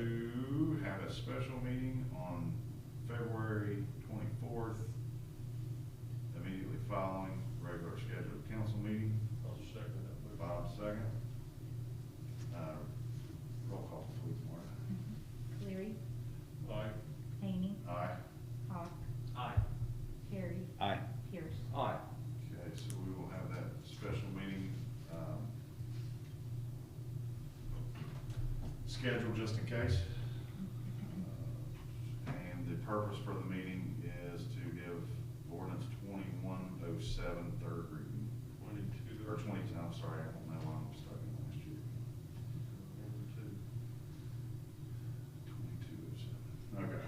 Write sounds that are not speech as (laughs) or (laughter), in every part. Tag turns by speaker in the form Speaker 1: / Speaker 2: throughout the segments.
Speaker 1: to have a special meeting on February twenty-fourth, immediately following regular scheduled council meeting.
Speaker 2: I'll second that motion.
Speaker 1: Bob, second. Uh, Roll call, please, Marta.
Speaker 3: Cleary,
Speaker 2: Aye.
Speaker 3: Hany,
Speaker 1: Aye.
Speaker 3: Hawk,
Speaker 2: Aye.
Speaker 3: Harry,
Speaker 4: Aye.
Speaker 3: Pierce.
Speaker 4: Aye.
Speaker 1: Okay, so we will have that special meeting, um, scheduled just in case. Uh, And the purpose for the meeting is to give ordinance twenty-one oh seven third reading,
Speaker 2: Twenty-two.
Speaker 1: or twenty, I'm sorry, I don't know why I'm starting last year.
Speaker 2: Number two.
Speaker 1: Twenty-two oh seven, okay.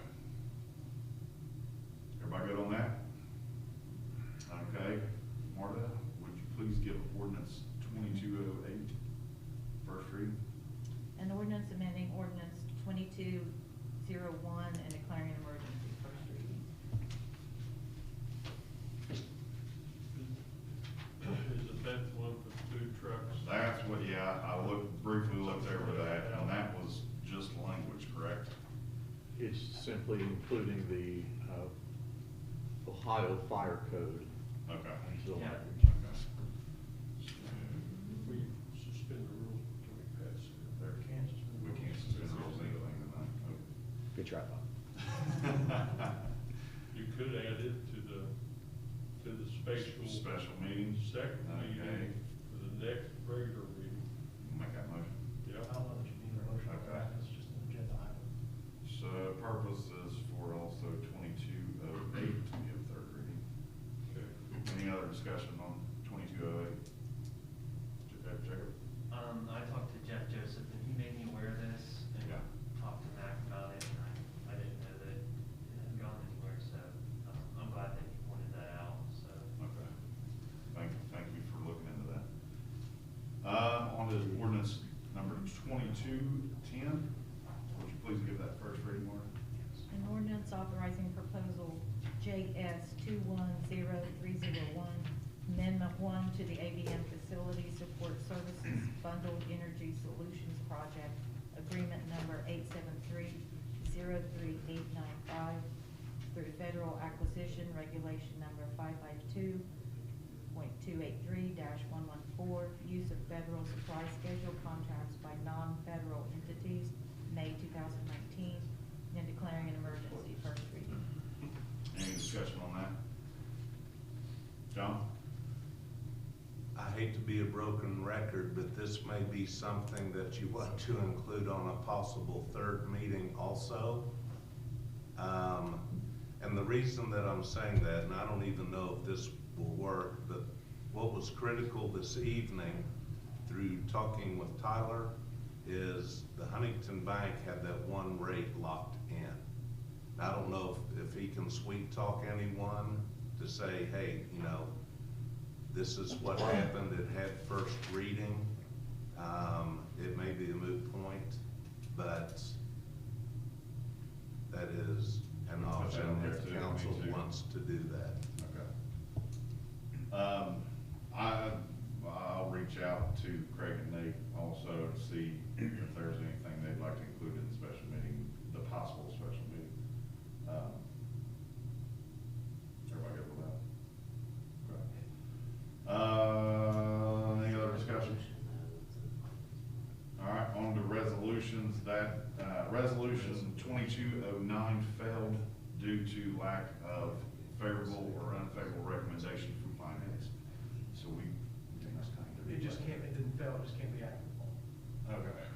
Speaker 1: Everybody good on that? Okay, Marta, would you please give ordinance twenty-two oh eight first reading?
Speaker 3: An ordinance amending ordinance twenty-two zero one and declaring an emergency first reading.
Speaker 2: Is it that one for food trucks?
Speaker 1: That's what, yeah, I looked, briefly looked over that, and that was just language, correct?
Speaker 5: It's simply including the uh, Ohio Fire Code
Speaker 1: Okay.
Speaker 5: into the
Speaker 6: Yeah.
Speaker 5: language.
Speaker 1: Okay.
Speaker 2: We suspend the rules until we pass it.
Speaker 1: There,
Speaker 2: Kansas.
Speaker 1: We can't suspend rules anything
Speaker 4: Good try, Bob.
Speaker 1: (laughs) tonight.
Speaker 2: You could add it to the, to the
Speaker 1: Special,
Speaker 2: spatial
Speaker 1: special meetings,
Speaker 2: second
Speaker 1: Okay.
Speaker 2: meeting for the next regular meeting.
Speaker 1: make that motion.
Speaker 2: Yeah.
Speaker 6: I don't know that you need a motion for that,
Speaker 1: Okay.
Speaker 6: it's just an agenda item.
Speaker 1: So purpose is for also twenty-two oh eight to be a third reading.
Speaker 2: Okay.
Speaker 1: Any other discussion on twenty-two oh eight? Jacob?
Speaker 6: Um, I talked to Jeff Joseph, and he made me aware of this, and
Speaker 1: Yeah.
Speaker 6: talked to Mac about it, and I, I didn't know that it had gone anywhere, so, um, I'm glad that he pointed that out, so.
Speaker 1: Okay. Thank, thank you for looking into that. Uh, on to ordinance number twenty-two ten. Would you please give that first reading, Mark?
Speaker 3: An ordinance authorizing proposal JS two one zero three zero one, amendment one to the ABM Facility Support Services Bundled Energy Solutions Project, agreement number eight seven three zero three eight nine five, through federal acquisition regulation number five five two point two eight three one one four, use of federal supply schedule contracts by non-federal entities, May two thousand nineteen, and declaring an emergency first reading.
Speaker 1: Any discussion on that? John?
Speaker 7: I hate to be a broken record, but this may be something that you want to include on a possible third meeting also. Um, and the reason that I'm saying that, and I don't even know if this will work, but what was critical this evening through talking with Tyler is the Huntington Bank had that one rate locked in. I don't know if, if he can sweet talk anyone to say, hey, you know, this is what happened, it had first reading. Um, it may be a moot point, but that is an option if council wants to do that.
Speaker 1: Okay. Um, I, I'll reach out to Craig and Nate also to see if there's anything they'd like to include in the special meeting, the possible special meeting. Um, Everybody good with that? Okay. Uh, any other discussions? All right, on to resolutions, that, uh, resolution twenty-two oh nine failed due to lack of favorable or unfavorable recommendation from finance. So we.
Speaker 6: It just can't, it didn't fail, it just can't be acted upon.
Speaker 1: Okay, Um,